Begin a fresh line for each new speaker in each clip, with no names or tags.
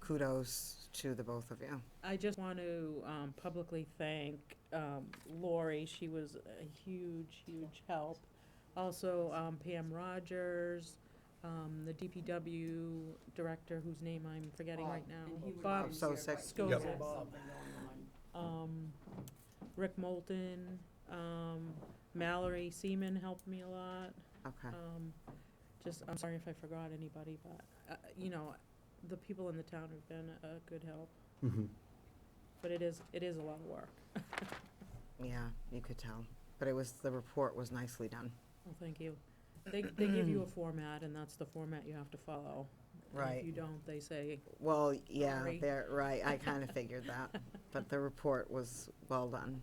kudos to the both of you.
I just want to um, publicly thank um, Lori. She was a huge, huge help. Also um, Pam Rogers, um, the DPW director whose name I'm
Oh,
forgetting right now. Bob
Bob Sosek.
Yep. Skozak.
Bob.
Um, Rick Moulton, um, Mallory Seaman helped me a lot.
Okay.
Um, Just, I'm sorry if I forgot anybody, but, uh, you know, the people in the town have been a good help. But it is, it is a lot of work.
Yeah, you could tell. But it was, the report was nicely done.
Well, thank you. They, they give you a format, and that's the format you have to follow. And
Right.
If you don't, they say,
Well, yeah,
Sorry.
they're, right, I kind of figured that. But the report was well done.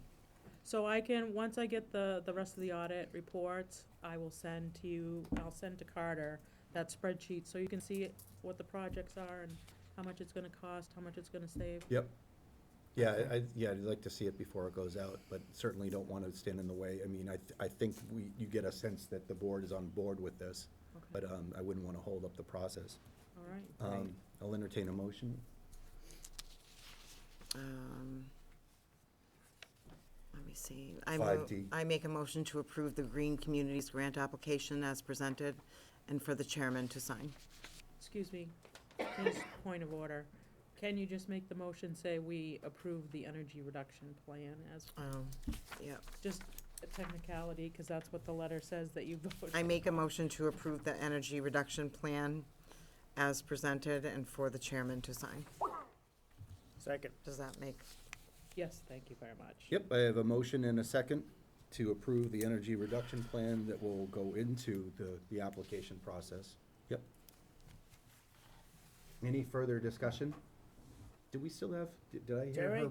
so I can, once I get the, the rest of the audit reports, I will send to you, I'll send to Carter that spreadsheet, so you can see it- what the projects are and how much it's gonna cost, how much it's gonna save.
Yep. Yeah, I, I- yeah, I'd like to see it before it goes out, but certainly don't want to stand in the way. I mean, I, th- I think we, you get a sense that the board is on board with this,
Okay,
uh,
but, um, I wouldn't want to hold up the process.
all right.
Um, I'll entertain a motion.
Um, Let me see. I
Five
move-
D.
I make a motion to approve the Green Communities Grant application as presented and for the chairman to sign.
Excuse me, just point of order. Can you just make the motion say we approve the energy reduction plan as,
Oh, yep.
just a technicality, because that's what the letter says that you voted.
I make a motion to approve the energy reduction plan as presented and for the chairman to sign.
Second.
Does that make,
Yes, thank you very much.
Yep, I have a motion and a second to approve the energy reduction plan that will go into the, the application process. Yep. Any further discussion? Do we still have, did did I hear her?
Jerry?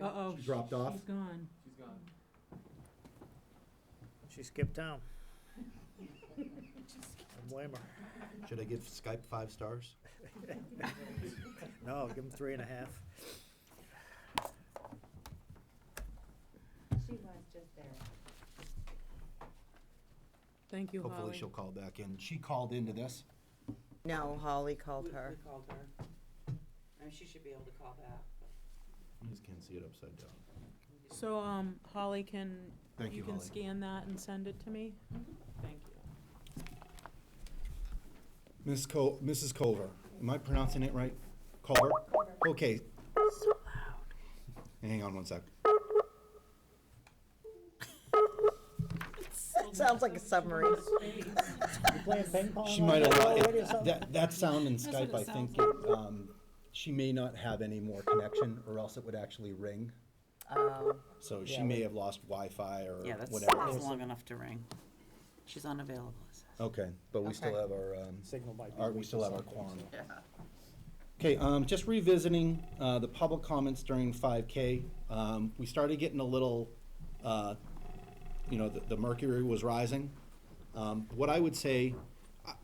Uh-oh.
She dropped off.
She's gone.
She skipped town. I blame her.
Should I give Skype five stars?
No, give him three and a half.
She was just there.
Thank you,
Hopefully
Holly.
she'll call back in. She called into this.
no, Holly called
We-
her.
We called her. I mean, she should be able to call back, but
I just can't see it upside down.
So, um, Holly, can,
Thank
you
you,
can
Holly.
scan that and send it to me? Thank you.
Ms. Col, Mrs. Culver, am I pronouncing it right? Culver? Okay. Hang on one sec.
Sounds like a submarine.
You playing ping pong?
She
on
might
the
allow,
radio or
it-
something?
that, that sound in
what
Skype,
it
I
sounds
think, it, um, she may not have any more connection, or else it would actually ring.
Oh,
So she
Yeah.
may have lost Wi-Fi or
yeah, that's,
whatever.
that's long enough to ring. She's unavailable. it says.
Okay, but we still
Okay.
have our, um,
Signal might be
our,
weak
we
or
still have our
something,
quorum.
so.
Okay, um, just revisiting, uh, the public comments during five K, um, we started getting a little, uh, you know, the, the mercury was rising. Um, what I would say,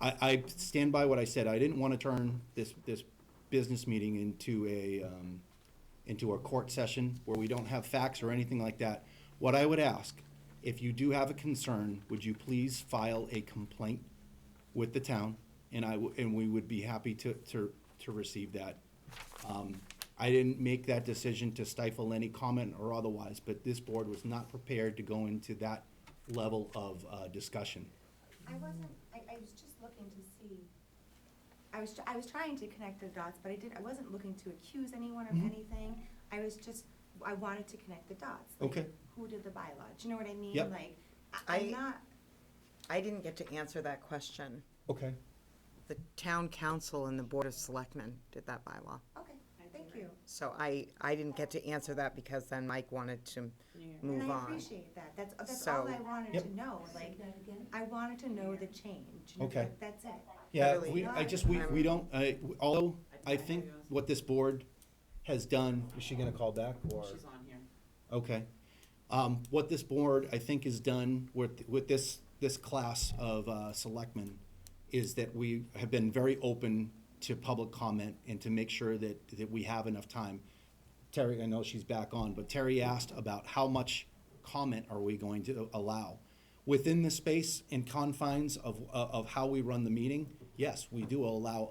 I, I I stand by what I said, I didn't wanna turn this, this business meeting into a, um, into a court session where we don't have facts or anything like that. What I would ask, if you do have a concern, would you please file a complaint with the town? And I, w- and we would be happy to, to, to receive that. Um, I didn't make that decision to stifle any comment or otherwise, but this board was not prepared to go into that level of, uh, discussion.
I wasn't, I, I was just looking to see, I was, tr- I was trying to connect the dots, but I didn't, I wasn't looking to accuse anyone of
Mm-hmm.
anything. I was just, I wanted to connect the dots. like,
Okay.
Who did the bylaw, do you know what I mean?
Yep.
Like, I-
Oh. I-
I'm not,
I didn't get to answer that question.
Okay.
The town council and the board of selectmen did that bylaw.
okay, thank you.
So I, I didn't get to answer that because then Mike wanted to move on.
And I appreciate that, that's, that's all
So-
I wanted
Yep.
to know, like, I wanted to know the change, you know,
Okay.
that- that's it.
Yeah,
Really.
we, I just, we, we don't, I, although, I think what this board has done, is she gonna call back or?
She's on here.
Okay. Um, what this board, I think, has done with, with this, this class of, uh, selectmen is that we have been very open to public comment and to make sure that, that we have enough time. Terry, I know she's back on, but Terry asked about how much comment are we going to allow? uh, Within the space and confines of, of how we run the meeting, yes, we do allow